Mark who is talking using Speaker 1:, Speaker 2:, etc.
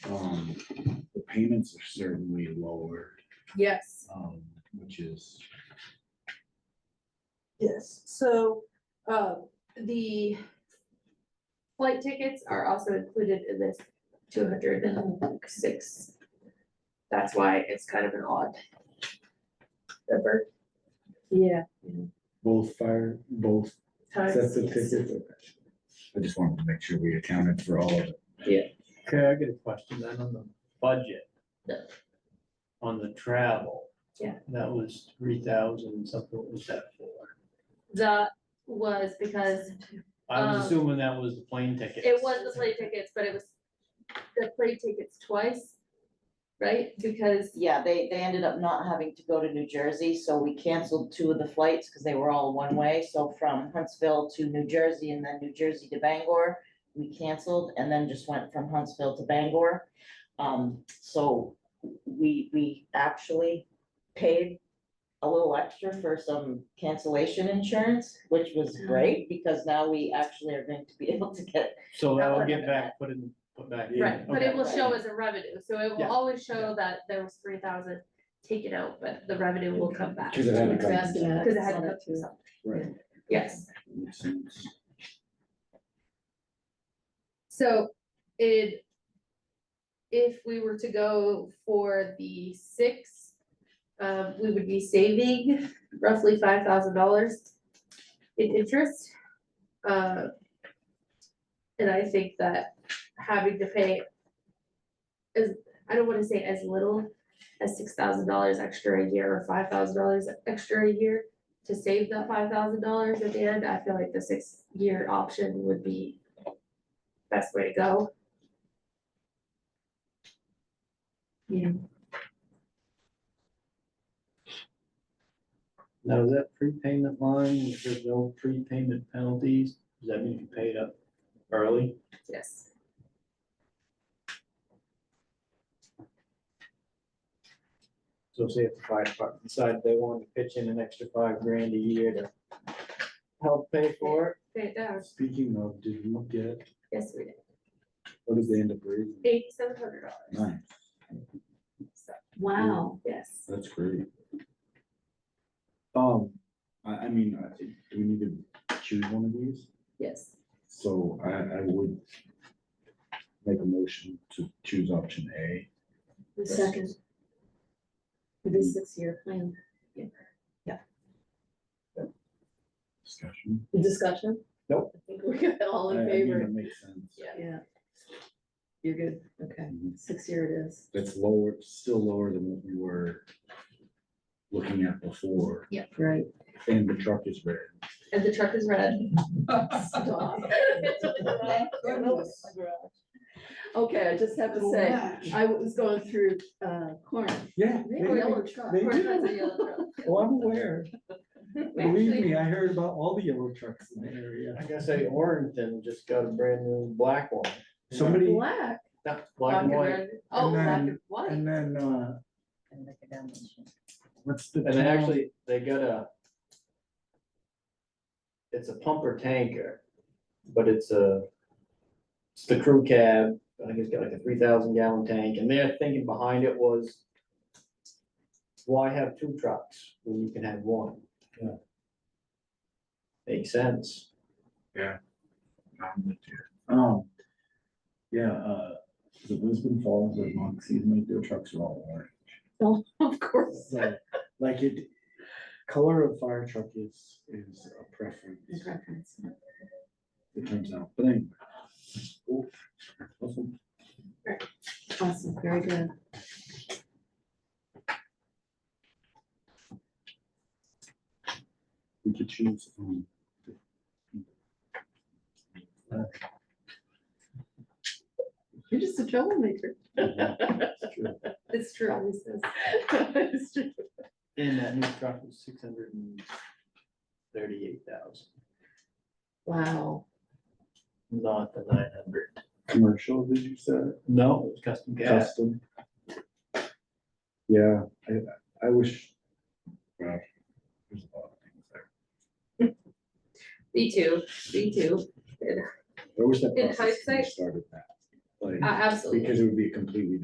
Speaker 1: Um, the payments are certainly lower,
Speaker 2: Yes,
Speaker 1: um, which is,
Speaker 2: yes, so, uh, the flight tickets are also included in this two hundred and six. That's why it's kind of an odd number. Yeah.
Speaker 3: Both fire, both sets of tickets.
Speaker 1: I just wanted to make sure we accounted for all of it.
Speaker 4: Okay, I get a question then on the budget.
Speaker 2: Yeah.
Speaker 4: On the travel.
Speaker 2: Yeah.
Speaker 4: That was three thousand something, what was that for?
Speaker 2: That was because
Speaker 4: I was
Speaker 2: Um,
Speaker 4: assuming that was the plane ticket.
Speaker 2: It was the plane tickets, but it was the plane tickets twice, right? Because,
Speaker 5: Yeah, they, they ended up not having to go to New Jersey, so we canceled two of the flights because they were all one way. So from Huntsville to New Jersey and then New Jersey to Bangor, we canceled and then just went from Huntsville to Bangor. Um, so we, we actually paid a little extra for some cancellation insurance, which was great because now we actually are going to be able to get
Speaker 4: So
Speaker 2: That
Speaker 4: that will
Speaker 2: would
Speaker 4: get
Speaker 2: have
Speaker 4: back, put in, put back. in.
Speaker 2: right, but it
Speaker 4: Okay.
Speaker 2: will show as a revenue, so it will
Speaker 4: Yeah.
Speaker 2: always show that there was three thousand taken out, but the revenue will come back.
Speaker 1: Because it had to come.
Speaker 2: Because it had to come from something.
Speaker 1: Right.
Speaker 2: yes.
Speaker 1: Makes sense.
Speaker 2: So it. If we were to go for the six, um, we would be saving roughly five thousand dollars in interest. Uh. And I think that having to pay. As, I don't wanna say as little as six thousand dollars extra a year or five thousand dollars extra a year. To save that five thousand dollars at the end, I feel like the six year option would be best way to go.
Speaker 4: Now, is that prepayment line, if there's no prepayment penalties, does that mean you paid up early?
Speaker 2: Yes.
Speaker 4: So say if the fire department decided they wanted to pitch in an extra five grand a year to help pay for it,
Speaker 2: Pay it down.
Speaker 3: Speaking of, did you get,
Speaker 2: Yes, we did.
Speaker 3: what did they end up raising?
Speaker 2: Eighty-seven hundred dollars.
Speaker 1: Nice,
Speaker 6: Wow.
Speaker 2: Yes.
Speaker 1: that's great.
Speaker 3: Um,
Speaker 1: I, I mean, I think, do we need to choose one of these?
Speaker 2: Yes.
Speaker 1: So I, I would make a motion to choose option A.
Speaker 6: The second. For this six-year plan,
Speaker 1: Discussion.
Speaker 6: the discussion?
Speaker 3: Nope.
Speaker 6: I think we're good, all
Speaker 1: I-
Speaker 6: in
Speaker 1: I think
Speaker 6: favor,
Speaker 1: That makes sense.
Speaker 2: Yeah.
Speaker 6: yeah. You're good, okay,
Speaker 1: Mhm.
Speaker 6: six-year it is.
Speaker 1: That's lower, still lower than what we were looking at before,
Speaker 6: Right.
Speaker 1: and the truck is red.
Speaker 2: And the truck is red.
Speaker 6: Stop. Okay, I just have to say, I was going through, uh, corn,
Speaker 3: yeah,
Speaker 6: they
Speaker 3: they-
Speaker 6: have a yellow truck.
Speaker 3: they
Speaker 2: Of course,
Speaker 3: do.
Speaker 2: that's a yellow truck.
Speaker 3: oh, I'm aware.
Speaker 2: We
Speaker 3: Believe
Speaker 2: actually-
Speaker 3: me, I heard about all the yellow trucks in the area.
Speaker 4: I gotta say, Orrington just got a brand new black one.
Speaker 3: Somebody,
Speaker 6: Black,
Speaker 4: Not black and
Speaker 2: Black
Speaker 4: white,
Speaker 2: red. Oh,
Speaker 3: And
Speaker 2: black
Speaker 3: then-
Speaker 2: and white.
Speaker 3: and then, uh, what's the?
Speaker 4: and
Speaker 3: town?
Speaker 4: actually, they got a. It's a pumper tanker, but it's a. It's the crew cab, I think it's got like a three thousand gallon tank, and their thinking behind it was. Why have two trucks when you can have one?
Speaker 3: Yeah.
Speaker 4: Makes sense.
Speaker 1: I'm with you.
Speaker 3: Um,
Speaker 1: Yeah, uh, the Lisbon Falls or Moxie, make their trucks are all orange.
Speaker 6: Oh, of course.
Speaker 3: so, like it, color of fire truck is, is a preference,
Speaker 6: Preference.
Speaker 1: it turns out, but anyway. Cool. Awesome.
Speaker 6: Awesome, very good.
Speaker 1: We could choose. um,
Speaker 6: You're just a troublemaker.
Speaker 2: It's true. Always is.
Speaker 6: It's true.
Speaker 4: And that new truck was six hundred and thirty-eight thousand,
Speaker 6: Wow,
Speaker 4: not the nine hundred.
Speaker 1: Commercial, did you say?
Speaker 4: No, it was custom gas.
Speaker 1: Custom. Yeah, I, I wish. well, There's a lot of things there.
Speaker 2: Me too, me too.
Speaker 1: I wish that
Speaker 2: In
Speaker 1: process had
Speaker 2: hindsight- Uh,
Speaker 1: started that. like,
Speaker 2: A- absolutely.
Speaker 1: because it would be a completely